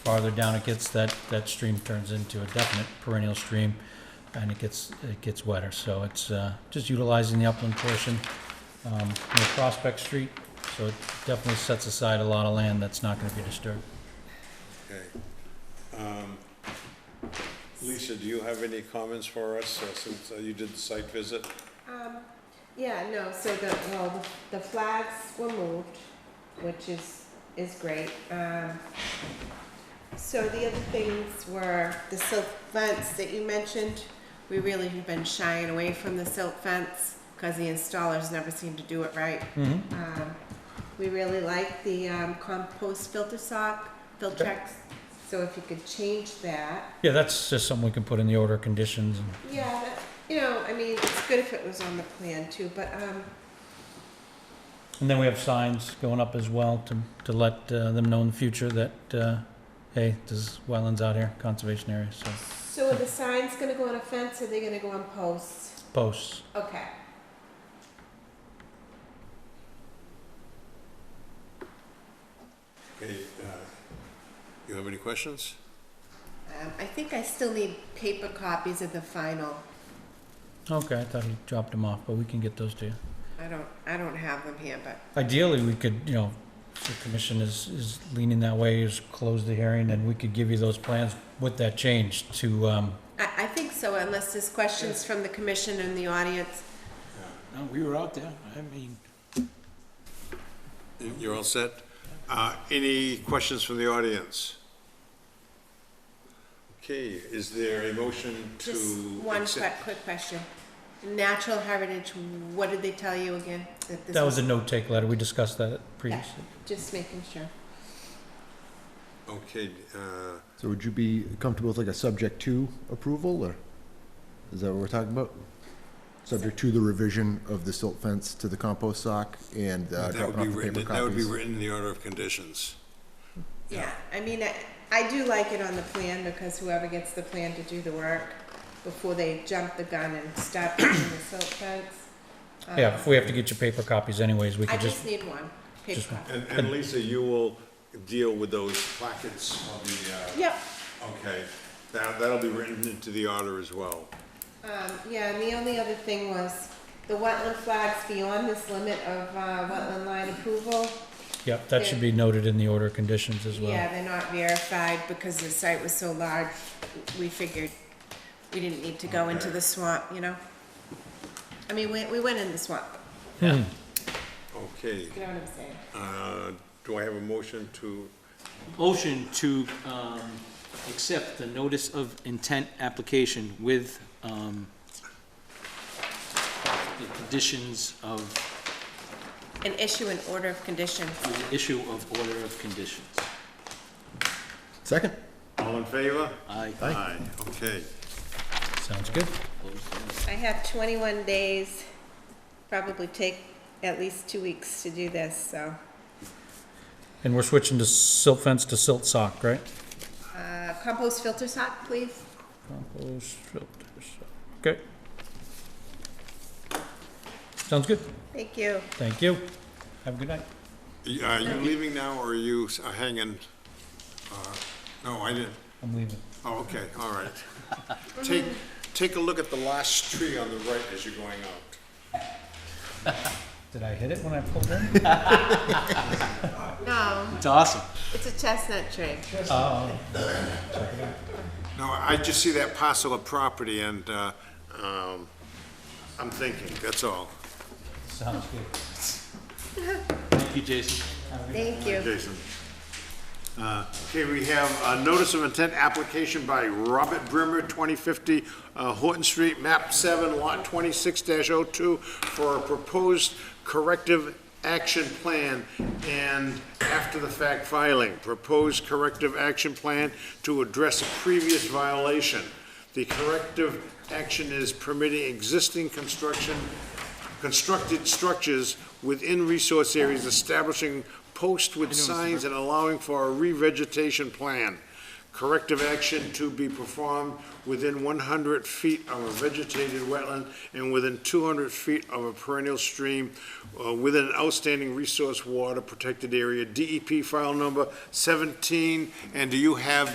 farther down it gets, that, that stream turns into a definite perennial stream, and it gets, it gets wetter. So it's uh, just utilizing the upland portion um, near Prospect Street, so it definitely sets aside a lot of land that's not going to be disturbed. Okay. Um, Lisa, do you have any comments for us uh, since uh, you did the site visit? Um, yeah, no, so the, well, the the flags were moved, which is, is great. Um, so the other things were the silk fence that you mentioned. We really have been shying away from the silk fence because the installers never seem to do it right. Mhm. Um, we really like the, um, compost filter sock, Filtrex, so if you could change that. Yeah, that's just something we can put in the order of conditions. and- Yeah, that, you know, I mean, it's good if it was on the plan too, but, um, And then we have signs going up as well to, to let uh, them know in the future that, uh, hey, there's wetlands out here, conservation area, so So are the signs gonna go on a fence, or are they gonna go on posts? posts. Okay. Okay, uh, you have any questions? Um, I think I still need paper copies of the final. Okay, I thought he dropped them off, but we can get those to you. I don't, I don't have them here, but, Ideally, we could, you know, if the commission is, is leaning that way, is close the hearing, and we could give you those plans with that change to, um, I, I think so, unless there's questions from the commission and the audience. No, we were out there, I mean, You're all set? Uh, Any questions from the audience? Okay, is there a motion to? Just one quick, accept- quick question. Natural heritage, what did they tell you again? this that was a no-take letter, we discussed that previously. Just making sure. Okay, uh, So would you be comfortable with like a subject to approval, or is that what we're talking about? Subject to the revision of the silt fence to the compost sock and uh, that would be dropping off the written, paper that would be copies? written in the order of conditions. Yeah, I mean, I, I do like it on the plan because whoever gets the plan to do the work before they jump the gun and start building the silt fence. um, Yeah, if we have to get your paper copies anyways, we I could just, just need one, paper just one. copy. And, and Lisa, you will deal with those plackets on the, uh, Yep, okay, that, that'll be written into the order as well. um, yeah, and the only other thing was the wetland flags beyond this limit of, uh, wetland line approval. yep, that should be noted in the order of conditions as well. Yeah, they're not verified because the site was so large, we figured we didn't need to go into the swamp, you know? I mean, we, we went in the swamp, Hmm. Okay, you know what I'm saying? uh, do I have a motion to, motion to, um, accept the notice of intent application with, um, the conditions of, And issue an order of condition. the issue of order of conditions. Second? all in favor? I Aye. Okay, Sounds good. close that. I have 21 days, probably take at least two weeks to do this, so, And we're switching to silt fence to silt sock, right? uh, compost filter sock, please? Compost filters, okay. Sounds good, Thank you. thank you. Have a good night. Y- are you leaving now or are you s- uh, hanging? Uh, No, I didn't, I'm leaving. oh, okay, all right. Take, take a look at the last tree on the right as you're going out. Did I hit it when I pulled in? No, It's awesome. it's a chestnut tree. No, I just see that parcel of property and uh, um, I'm thinking, that's all. Sounds good. Thank you, Jason. Thank you. Jason. Uh, Okay, we have a notice of intent application by Robert Brimmer, 2050 uh, Horton Street, map 7, lot 26-02, for a proposed corrective action plan and after-the-fact filing, proposed corrective action plan to address a previous violation. The corrective action is permitting existing construction constructed structures within resource areas, establishing posts with signs and allowing for a revegetation plan. corrective action to be performed within one hundred feet of a vegetated wetland and within two hundred feet of a perennial stream uh, within an outstanding E resource water protected area, DEP file number seventeen, and do you have